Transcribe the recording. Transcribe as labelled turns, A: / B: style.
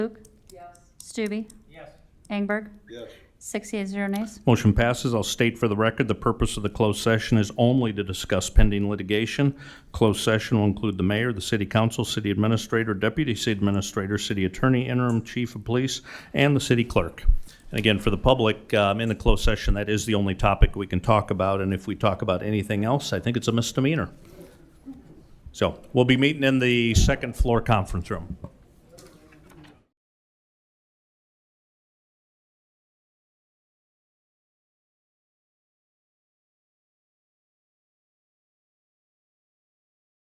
A: Luke? Yes. Stube? Yes. Engberg?
B: Yes.
A: Six yeas, zero nays.
C: Motion passes. I'll state for the record, the purpose of the closed session is only to discuss pending litigation. Closed session will include the mayor, the city council, city administrator, deputy city administrator, city attorney, interim chief of police, and the city clerk. And again, for the public, um, in the closed session, that is the only topic we can talk about, and if we talk about anything else, I think it's a misdemeanor. So we'll be meeting in the second floor conference room.